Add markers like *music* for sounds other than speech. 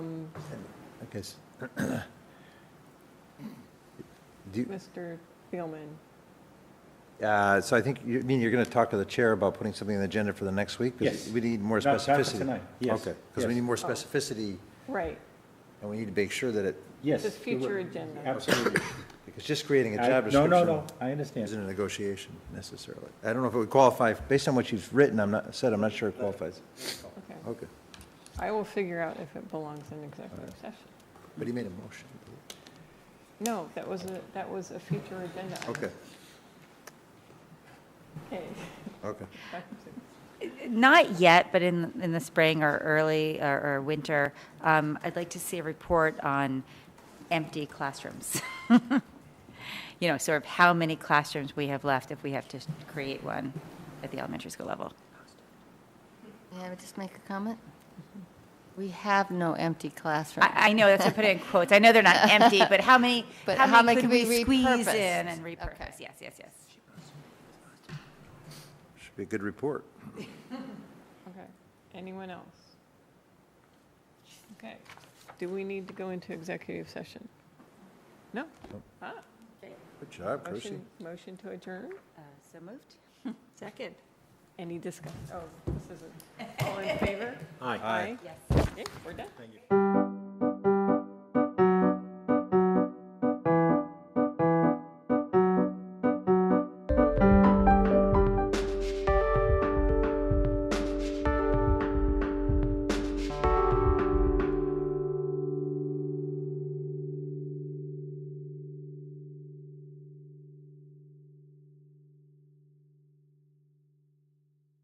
because. Do, you- Mr. Spielman. uh, so I think, you I mean, you're going to talk to the chair about putting something on the agenda for the next week? 'Cause Yes. We need more Not- not for specificity. tonight, yes, Okay, because we yes. need more specificity, Right, and we need to make sure that it, Yes. just we will. future agenda. Absolutely. because just creating a I- job No, description. no, no, I understand. Isn't a negotiation necessarily. I don't know if it would qualify, based on what you've written, I'm not, said, I'm not sure it qualifies. Okay. Okay, I will figure out if it belongs in executive session. but he made a motion. No, that was a, that was a future agenda. item. Okay, Okay. okay. Not yet, but in, in the spring or early or, or winter, um, I'd like to see a report on empty classrooms. *laughs* You know, sort of how many classrooms we have left if we have to create one at the elementary school level. May I just make a comment? We have no empty classrooms. Mm-hmm. I, I know, that's, I put it in quotes. I know they're *laughs* not empty, but how many, But how many could we squeeze repurpose? in and Okay. repurpose? Yes, yes, yes. Should be a good report. *laughs* Okay, anyone else? Okay, do we need to go into executive session? No? Ah, Good job, Chrissy. motion, motion to adjourn? Uh, So moved? Second. Any discuss, oh, this isn't, all in favor? Aye. Aye. Yes. Okay, we're done. Thank you.